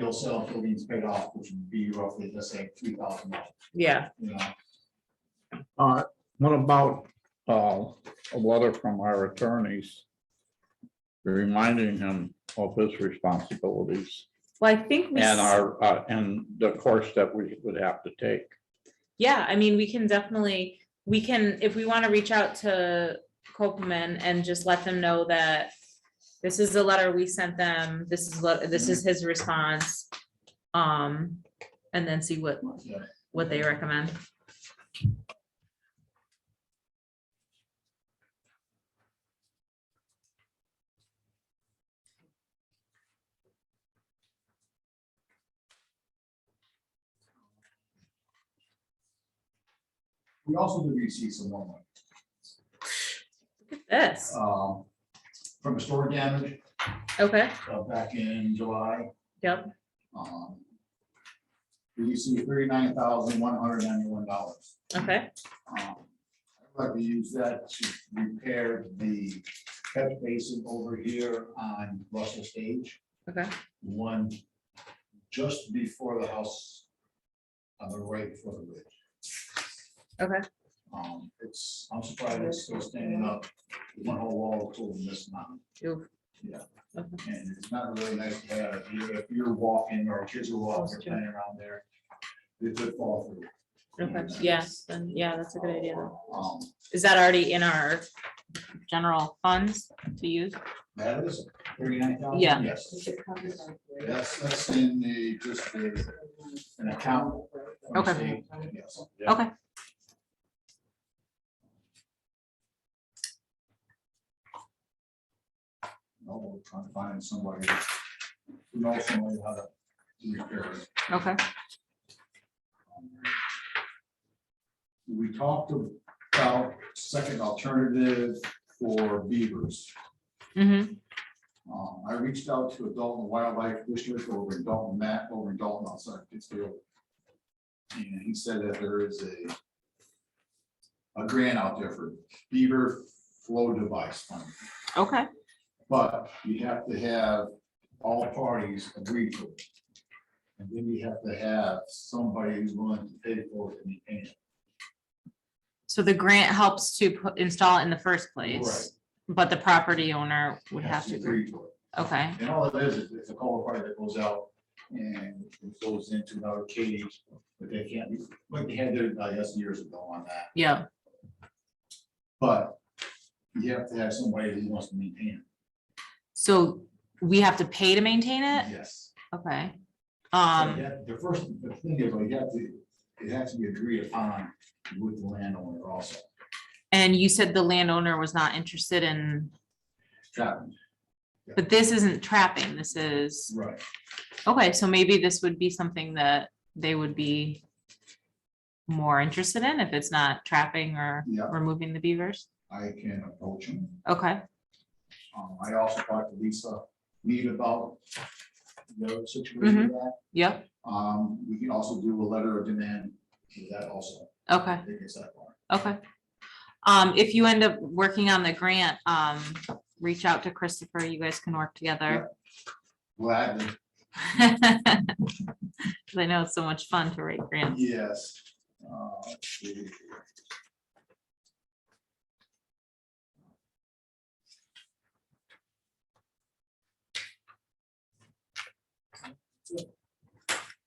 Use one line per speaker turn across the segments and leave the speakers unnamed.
it'll sell till these paid off, which would be roughly, let's say, three thousand dollars,
yeah,
you know?
Uh, what about, uh, a letter from our attorneys? Reminding him of his responsibilities
well, I think we, s-
and our, uh, and the course that we would have to take.
yeah, I mean, we can definitely, we can, if we want to reach out to Copman and just let them know that this is the letter we sent them, this is, what this
Mm-hmm.
is his response. Um, and then see what,
Yeah.
what they recommend.
We also did receive some more money,
This,
um, from a storm damage,
okay,
uh, back in July.
yep,
Um, We received thirty-nine thousand, one hundred ninety-one dollars.
okay,
Um, I'd like to use that to repair the catch basin over here on Russell Stage,
okay,
one just before the house on the right before the bridge.
okay,
Um, It's, I'm surprised it's still standing up, one whole wall full of this mountain.
Oof.
Yeah.
Okay.
And it's not really nice to have, if you're- if you're walking or kids are walking, or playing around there, they could fall through. uh,
okay, yes, then, yeah, that's a good idea. then.
Um,
Is that already in our general funds to use?
That is thirty-nine thousand.
Yeah.
Yes, that's, that's in the, just the, an account. from the
Okay.
state, yes.
Okay.
No, we're trying to find somebody who knows somebody how to repair it.
Okay,
We talked about second alternative for beavers.
mm-hmm,
Um, I reached out to Adult and Wildlife District over in Dalton, Matt, over in Dalton outside Pittsfield. And he said that there is a a grant out there for beaver flow device fund,
okay,
but you have to have all parties agree to it. And then you have to have somebody who's willing to pay for it in the end.
so the grant helps to pu- install it in the first place, but the property owner would have to, agree.
to it.
okay,
And all it is, is it's a culvert pipe that goes out and it goes into another cage, but they can't, be- like they had their, I guess, years ago on that.
yeah,
But you have to have somebody who wants to maintain
so we have to pay to maintain
it.
it,
Yes.
okay.
So
Eh, Um,
you have- The first, the thing is, like, you have to, it has to be agreed upon with the landowner also.
and you said the landowner was not interested in,
Trapping,
but this isn't trapping, this is,
right.
okay, so maybe this would be something that they would be more interested in if it's not trapping or
Yeah.
removing the beavers,
I can approach him.
okay.
Um, I also talked to Lisa Mead about the situation with that.
Yep,
Um, we can also do a letter of demand for that also.
okay,
I think it's that far.
okay. Um, if you end up working on the grant, um, reach out to Christopher, you guys can work together.
Gladly,
Cause I know it's so much fun to write grants.
yes. Uh, let's see.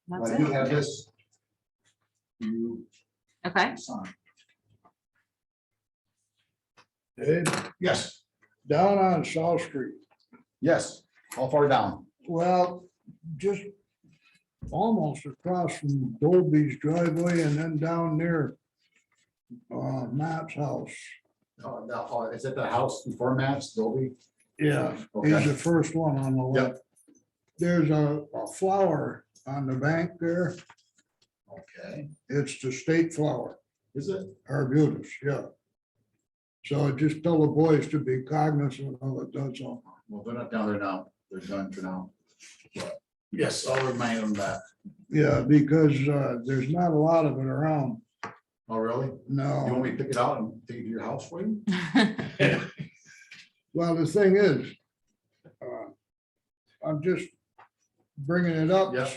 That's
I do
it,
have this. You
okay,
sign.
Dave,
Yes,
down on South Street,
yes, how far down?
well, just almost across from Dolby's driveway and then down near uh, Matt's house.
Oh, no, oh, Is it the house before Matt's, Dolby?
Yeah, he's
Okay.
the first one on the left. There's a, a flower on the bank there.
Okay,
It's the state flower,
is it?
arbutus, yeah. So I just tell the boys to be cognizant of it, that's all.
Well, they're not down there now, they're done for now. But, Yes, I'll remind them that.
Yeah, because uh, there's not a lot of it around.
Oh, really? You
No.
want me to pick it out and take it to your house for you?
Well, the thing is, uh, I'm just bringing it up
Yeah.